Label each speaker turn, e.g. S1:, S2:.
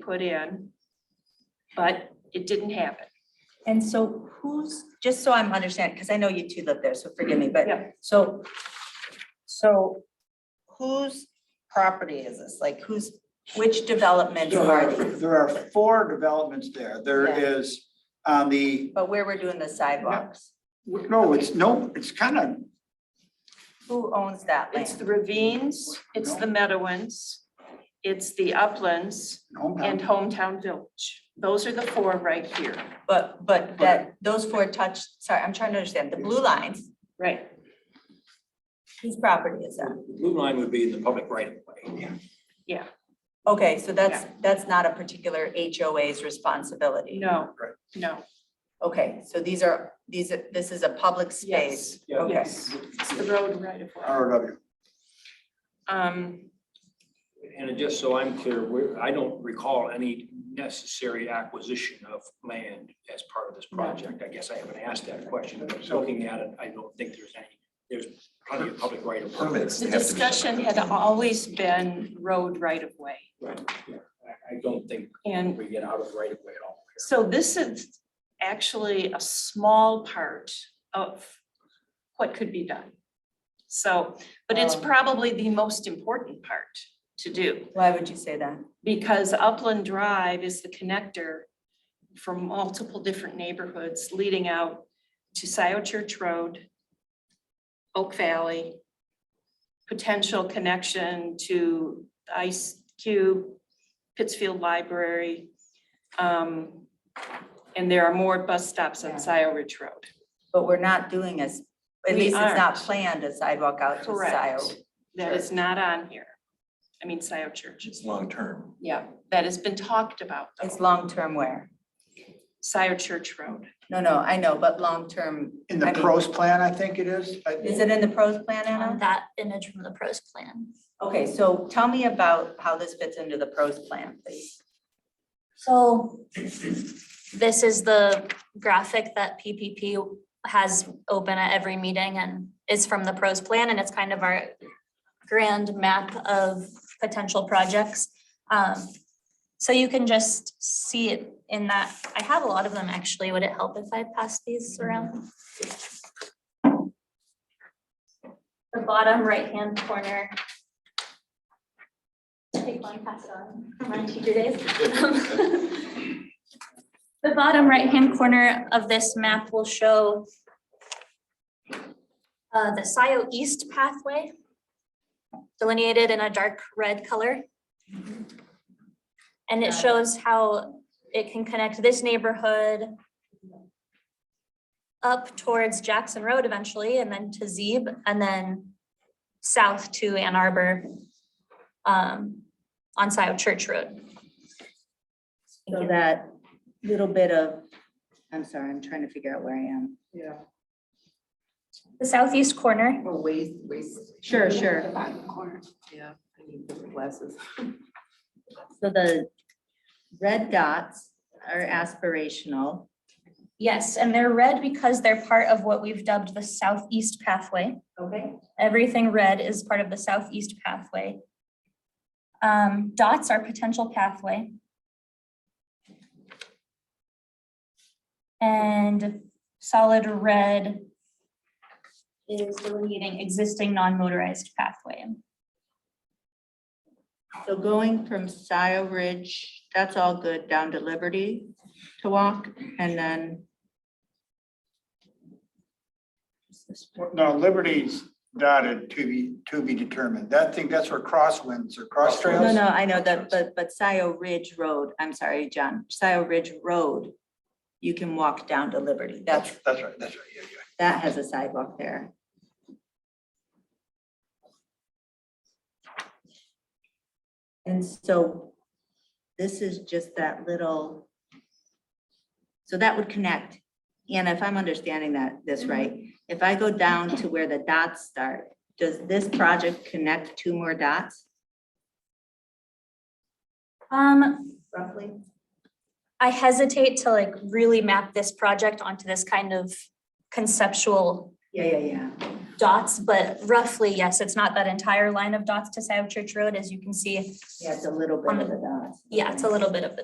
S1: put in, but it didn't happen.
S2: And so who's, just so I'm understanding, because I know you two live there, so forgive me, but
S1: Yeah.
S2: so, so whose property is this? Like who's, which developments
S3: There
S2: are
S3: are,
S2: these?
S3: there are four developments there. There
S2: Yeah.
S3: is on the,
S2: But where we're doing the sidewalks,
S3: no, it's, no, it's kind of,
S2: who owns that
S1: It's
S2: land?
S1: the ravines, it's the Meadowlands, it's the uplands and
S3: hometown.
S1: hometown village. Those are the four right here.
S2: But, but that, those four touch, sorry, I'm trying to understand, the blue lines,
S1: Right.
S2: whose property is that?
S4: The Blue line would be in the public right of way.
S2: Okay, so that's, that's not a particular HOA's responsibility?
S1: No,
S3: Right.
S1: no,
S2: Okay, so these are, these, are- this is a public
S1: yes,
S2: space?
S4: Yeah.
S2: Okay.
S1: yes. It's the road right of way.
S3: ROW.
S1: Um,
S4: And just so I'm clear, we're, I don't recall any necessary acquisition of land as part of this
S1: No.
S4: project. I guess I haven't asked that question. But Looking at it, I don't think there's any, there's plenty of public right of. way.
S5: Permits.
S1: the
S5: have to be-
S1: discussion had always been road right of way.
S4: Right, yeah. I, I don't think
S1: And
S4: we get out of right of way at all.
S1: So this is actually a small part of what could be done. So, but it's
S2: Um.
S1: probably the most important part to do,
S2: Why would you say that?
S1: because Upland Drive is the connector for multiple different neighborhoods leading out to Scioto Church Road, Oak Valley, potential connection to Ice Cube, Pittsfield Library. um, And there are more bus stops on
S2: Yeah.
S1: Scioto Ridge Road.
S2: But we're not doing as, at
S1: We
S2: least it's not
S1: aren't.
S2: planned a sidewalk out to
S1: Correct.
S2: Scioto.
S1: That is not on here. I mean, Scioto Church.
S5: It's long-term.
S1: Yeah, that has been talked about
S2: It's
S1: though.
S2: long-term where?
S1: Scioto Church Road.
S2: No, no, I know, but long-term.
S3: In the
S2: I mean,
S3: pros plan, I think it is. I-
S2: Is it in the pros plan,
S6: on
S2: Anna?
S6: that image from the pros plan.
S2: Okay, so tell me about how this fits into the pros plan, please.
S6: So this is the graphic that PPP has open at every meeting and is from the pros plan and it's kind of our grand map of potential projects. Um, So you can just see it in that. I have a lot of them actually. Would it help if I pass these around? The bottom right-hand corner. Take one, pass it on. Come on, teacher days. The bottom right-hand corner of this map will show uh, the SIO East pathway delineated in a dark red color. And it shows how it can connect this neighborhood up towards Jackson Road eventually, and then to Zeeb, and then south to Ann Arbor um, on SIO Church Road.
S2: So that little bit of, I'm sorry, I'm trying to figure out where I am.
S7: Yeah.
S6: The southeast corner
S7: Or waste, waste.
S2: Sure, sure.
S7: The bottom corner. Yeah, I need different glasses.
S2: So the red dots are aspirational.
S6: Yes, and they're red because they're part of what we've dubbed the southeast pathway.
S2: Okay.
S6: Everything red is part of the southeast pathway. Um, dots are potential pathway. And solid red is delineating existing non-motorized pathway.
S2: So going from Scio Ridge, that's all good, down to Liberty to walk and then.
S3: No, Liberty's dotted to be, to be determined. That thing, that's where crosswinds or cross trails.
S2: No, no, I know that, but, but Scio Ridge Road, I'm sorry, John, Scio Ridge Road, you can walk down to Liberty. That's,
S3: That's right, that's right, yeah, yeah.
S2: that has a sidewalk there. And so this is just that little. So that would connect. And if I'm understanding that, this right, if I go down to where the dots start, does this project connect two more dots
S6: Um,
S2: roughly?
S6: I hesitate to like really map this project onto this kind of conceptual
S2: Yeah, yeah, yeah.
S6: dots, but roughly, yes, it's not that entire line of dots to South Church Road, as you can see.
S2: Yeah, it's a little bit of the dots.
S6: Yeah, it's a little bit of the